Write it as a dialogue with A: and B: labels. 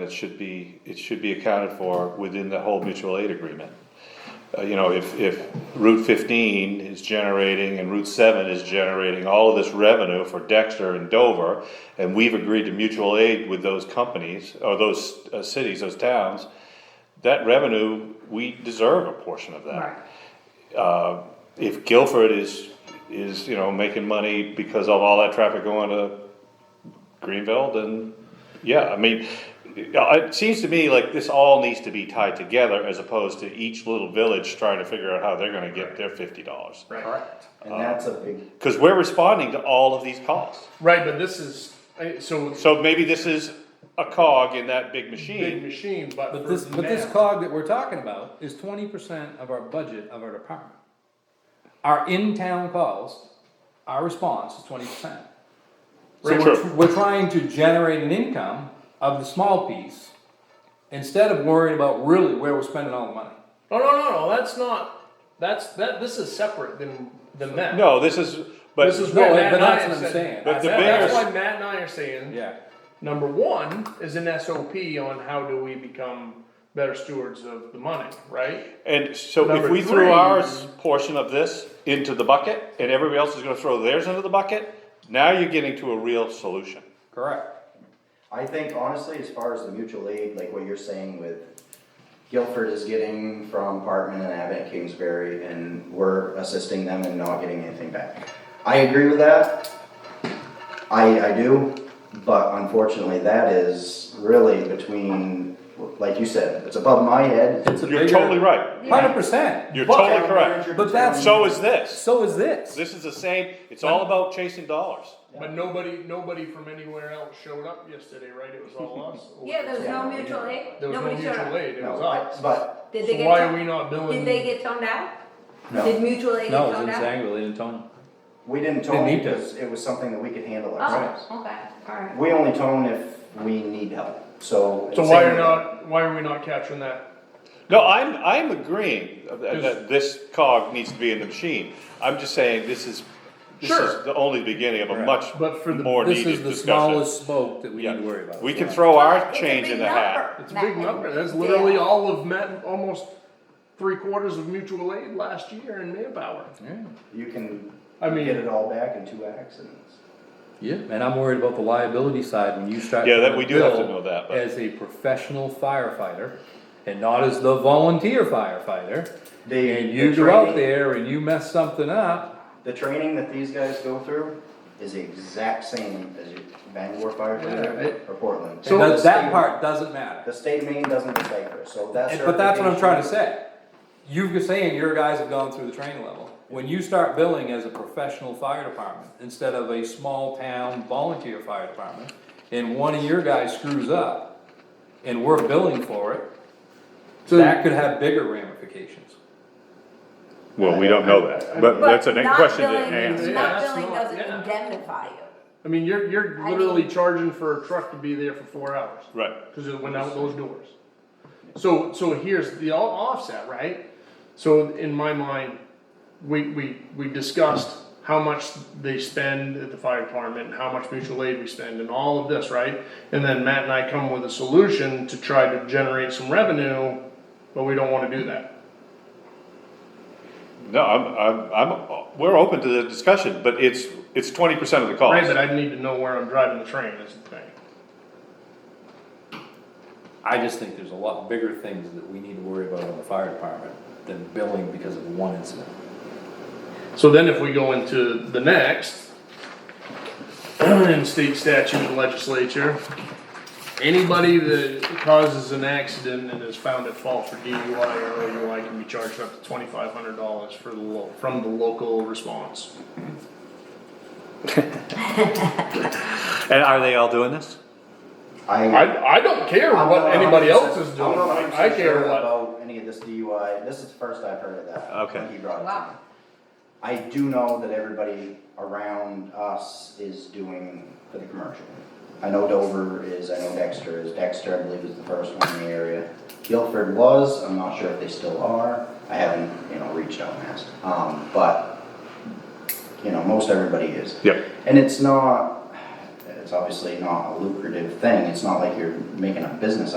A: And it should be, it should be accounted for within the whole mutual aid agreement. Uh, you know, if, if Route fifteen is generating and Route seven is generating all of this revenue for Dexter and Dover, and we've agreed to mutual aid with those companies, or those uh, cities, those towns, that revenue, we deserve a portion of that
B: Right,
A: uh, if Guilford is, is, you know, making money because of all that traffic going to Greenville, then, yeah, I mean, uh, it seems to me like this all needs to be tied together as opposed to each little village trying to figure out how they're gonna get their fifty dollars.
C: Correct. And that's a big,
A: Cause we're responding to all of these calls.
D: Right, but this is, I- so it's
A: So maybe this is a cog in that big
D: a big
A: machine.
D: machine, but
E: But
D: for
E: this, but this
D: now-
E: cog that we're talking about is twenty percent of our budget of our department. Our in-town calls, our response is twenty percent. So
A: Right.
E: we're,
A: True.
E: tr- we're trying to generate an income of the small piece, instead of worrying about really where we're spending all the money.
D: No, no, no, no, that's not, that's, that, this is separate than, than that.
A: No, this is, but.
D: This is
E: No,
D: what
E: but
D: Matt and I
E: that's
D: are
E: what I'm
D: saying.
E: saying.
A: But the
D: That-
A: bigger-
D: That's why Matt and I are saying,
E: Yeah,
D: number one is an SOP on how do we become better stewards of the money, right?
A: And so if
D: Number
A: we threw
D: three-
A: ours portion of this into the bucket, and everybody else is gonna throw theirs into the bucket, now you're getting to a real solution.
E: correct.
C: I think honestly, as far as the mutual aid, like what you're saying with Guilford is getting from Parkman and Abbott Kingsbury and we're assisting them and not getting anything back. I agree with that. I, I do, but unfortunately that is really between, like you said, it's above my head.
E: It's a
A: You're
E: bigger-
A: totally right.
E: Hundred percent.
A: You're totally
C: But-
A: correct.
E: But that's-
A: So is this.
E: So is this.
A: This is the same, it's all about chasing dollars.
D: But nobody, nobody from anywhere else showed up yesterday, right? It was all us.
B: yeah, there was no
C: Yeah.
B: mutual aid,
D: There was no
B: nobody showed
D: mutual
B: up.
D: aid, it was
C: No, I-
D: us.
C: but,
B: Did they
D: So
B: get?
D: why are
B: toned-
D: we not billing?
B: Did they get toned out? Did
C: no,
B: mutual aid get
E: No, it was
B: toned
E: in
B: out?
E: Sangerville, they didn't tell me.
C: we didn't tone
E: need to.
C: because it was something that we could handle ourselves.
B: Oh, okay, alright.
C: We only tone if we need help, so.
D: So why are not, why are we not capturing that?
A: No, I'm, I'm agreeing that that this cog needs to be in the machine. I'm just saying this is, this
D: Sure.
A: is the only beginning of a much
D: But for the-
A: more
E: This is
A: needed
E: the
A: discussion.
E: smallest spoke that we
A: Yeah.
E: need to worry about.
A: We can throw
B: Well,
A: Oh, our
B: it's a
A: change
B: big
A: in the hat.
B: number,
D: It's a big
B: that-
D: number. That's literally
B: Yeah.
D: all of Matt, almost three quarters of mutual aid last year in manpower.
C: You can
D: I mean-
C: get it all back in two accidents.
E: Yeah, and I'm worried about the liability side when you start.
A: Yeah, that we do have to
E: bill
A: know that, but-
E: As a professional firefighter and not as the volunteer firefighter.
C: They-
E: And you
C: the
E: go out
C: training-
E: there and you mess something up,
C: The training that these guys go through is the exact same as your Bangor
D: Yeah, it-
C: firefighter or Portland.
D: So-
E: that, that
C: the
E: part doesn't
C: state- The
E: matter.
C: state main doesn't decipher, so that's.
E: And- But that's what I'm trying to say. You're saying your guys have gone through the training level. When you start billing as a professional fire department instead of a small town volunteer fire department, and one of your guys screws up and we're billing for it,
D: So-
E: that could have bigger ramifications.
A: Well, we don't know that, but
B: But
A: that's a
B: not
A: question to
B: billing-
A: answer.
D: Yeah,
B: Not
D: that's
B: billing
D: not-
B: doesn't
D: yeah.
B: indemnify you.
D: I mean, you're, you're
B: I
D: literally
B: mean-
D: charging for a truck to be there for four hours.
A: Right.
D: Cause it went out those doors. So, so here's the all offset, right? So in my mind, we, we, we discussed how much they spend at the fire department, how much mutual aid we spend and all of this, right? And then Matt and I come with a solution to try to generate some revenue, but we don't wanna do that.
A: No, I'm, I'm, I'm, we're open to the discussion, but it's, it's twenty percent of the
D: Right, but
A: cost.
D: I need to know where I'm driving the train is the thing.
E: I just think there's a lot bigger things that we need to worry about on the fire department than billing because of one incident.
D: So then if we go into the next, in state statute and legislature, anybody that causes an accident and is found at fault for DUI or OUI can be charged up to twenty-five hundred dollars for the lo- from the local response.
A: And are they all doing this?
C: I.
D: I, I don't care
C: I'm
D: what
C: not
D: anybody
C: 100%
D: else is
C: I'm
D: doing,
C: not
D: I
C: 100%
D: care
C: sure
D: what.
C: About any of this DUI, this is the first I've heard of that.
A: Okay.
C: when He brought it to
B: Wow.
C: me. I do know that everybody around us is doing for the commercial. I know Dover is, I know Dexter is, Dexter I believe is the first one in the area. Guilford was, I'm not sure if they still are, I haven't, you know, reached out and asked, um, but, you know, most everybody is.
A: Yep.
C: And it's not, It's obviously not a lucrative thing, it's not like you're making a business